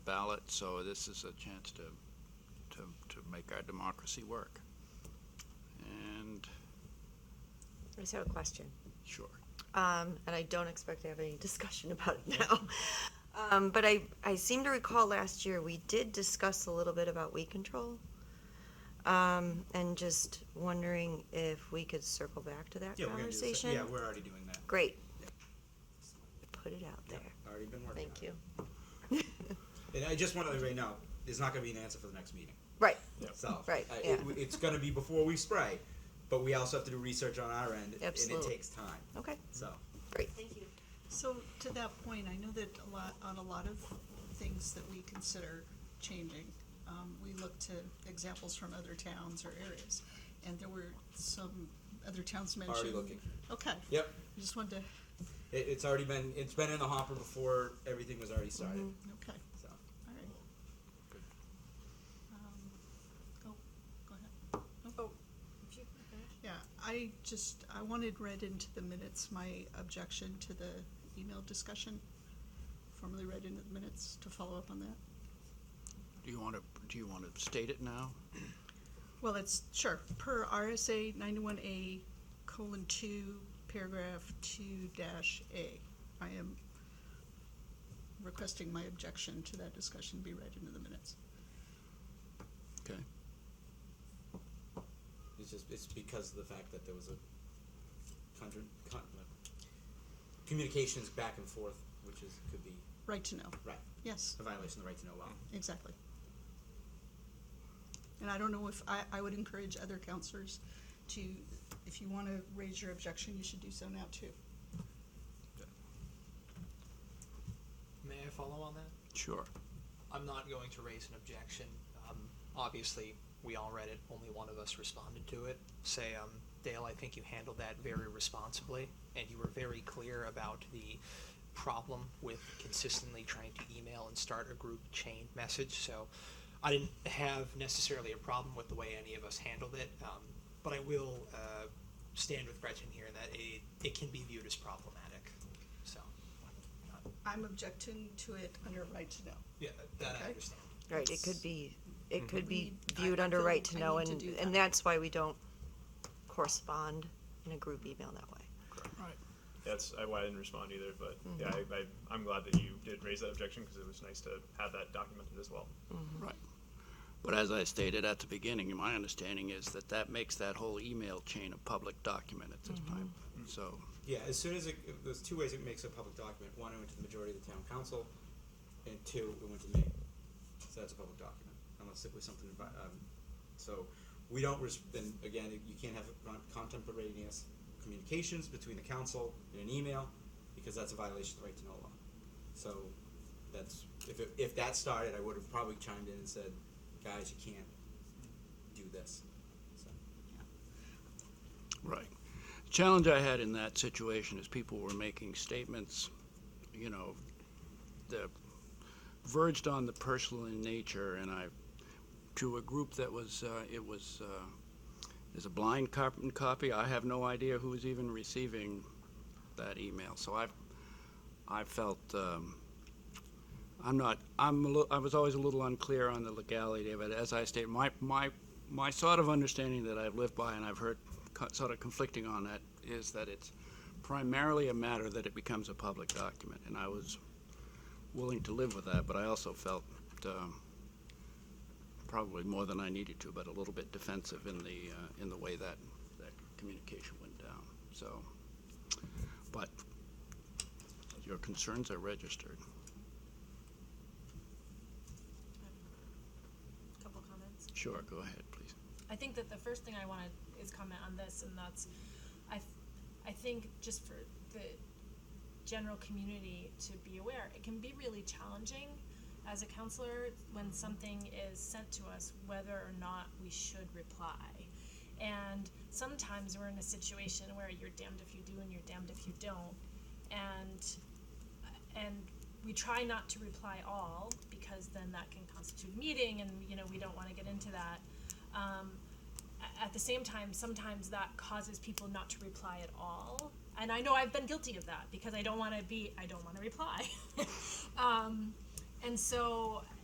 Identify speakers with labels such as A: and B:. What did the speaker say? A: ballot, so this is a chance to, to, to make our democracy work. And,
B: I just have a question,
A: sure,
B: um, and I don't expect to have any discussion about it now. Um, but I, I seem to recall last year, we did discuss a little bit about weed control. Um, and just wondering if we could circle back to that
C: Yeah, we're gonna do the
B: conversation?
C: same. Yeah, we're already doing that.
B: Great. Put it out
C: Yeah,
B: there.
C: Already been working on
B: Thank you.
C: it. And I just want to let you know, there's not gonna be an answer for the next meeting,
B: Right,
C: so.
B: Right,
C: I-
B: yeah.
C: it- It's gonna be before we spray, but we also have to do research on our end, and it
B: Absolutely.
C: takes time,
B: okay,
C: so.
B: great.
D: So to that point, I know that a lot, on a lot of things that we consider changing, um, we look to examples from other towns or areas. And there were some other towns mentioned.
C: looking.
D: Okay.
C: Yep,
D: I just wanted
C: it, it's already been, it's been in the hopper before everything was already started,
B: Mm-hmm.
D: to, okay,
C: so.
D: all right.
C: Good.
D: Um, Go, go ahead. Oh. Yeah, I just, I wanted read into the minutes my objection to the email discussion, formally read into the minutes to follow up on that.
A: do you want to, do you want to state it now?
D: Well, it's, sure, per RSA ninety-one A colon two, paragraph two dash A. I am requesting my objection to that discussion be read into the minutes.
A: Okay,
C: It's just, it's because of the fact that there was a contra- con- uh, communications back and forth, which is, could be,
D: Right to know,
C: right,
D: yes,
C: a violation of the right to know law.
D: exactly. And I don't know if, I, I would encourage other counselors to, if you wanna raise your objection, you should do so now too.
E: May I follow on that?
A: sure.
E: I'm not going to raise an objection. Um, obviously, we all read it, only one of us responded to it. Say, um, Dale, I think you handled that very responsibly, and you were very clear about the problem with consistently trying to email and start a group chain message, so I didn't have necessarily a problem with the way any of us handled it, um, but I will, uh, stand with Gretchen here in that it, it can be viewed as problematic, so, uh,
D: I'm objecting to it under right to know.
E: yeah, that
D: Okay.
E: I understand.
B: Right, it could be, it
C: Mm-hmm.
B: could be
D: need- I-
B: viewed
D: I
B: under
D: feel
B: right
D: I
B: to know,
D: need to
B: and,
D: do
B: and
D: that.
B: that's why we don't correspond in a group email that way.
F: That's I- why I didn't respond either, but yeah, I, I, I'm glad that you did raise that objection because it was nice to have that documented as well.
A: Right. But as I stated at the beginning, my understanding is that that makes that whole email chain a public document at this time. So,
C: Yeah, as soon as it, it- there's two ways it makes a public document. One, it went to the majority of the town council, and two, it went to me. So that's a public document, unless it was something about, um, so we don't, res- then again, you can't have con- contemporaneous communications between the council and an email, because that's a violation of the right to know law. So that's, if, it- if that started, I would have probably chimed in and said, guys, you can't do this. So,
A: right. Challenge I had in that situation is people were making statements, you know, that verged on the personal in nature, and I, to a group that was, uh, it was, uh, is a blind cop- copy. I have no idea who was even receiving that email. So I've, I felt, um, I'm not, I'm, a li- I was always a little unclear on the legality of it. As I stated, my, my, my sort of understanding that I've lived by and I've heard co- sort of conflicting on that is that it's primarily a matter that it becomes a public document. And I was willing to live with that, but I also felt, um, probably more than I needed to, but a little bit defensive in the, uh, in the way that, that communication went down, so. But your concerns are registered.
G: couple comments.
A: Sure, go ahead, please.
G: I think that the first thing I want to is comment on this, and that's, I, th- I think just for the general community to be aware, it can be really challenging as a counselor when something is sent to us, whether or not we should reply. And sometimes we're in a situation where you're damned if you do and you're damned if you don't, and and we try not to reply all because then that can constitute a meeting and you know we don't want to get into that um, a- at the same time sometimes that causes people not to reply at all and i know i've been guilty of that because i don't want to be i don't want to reply um, and so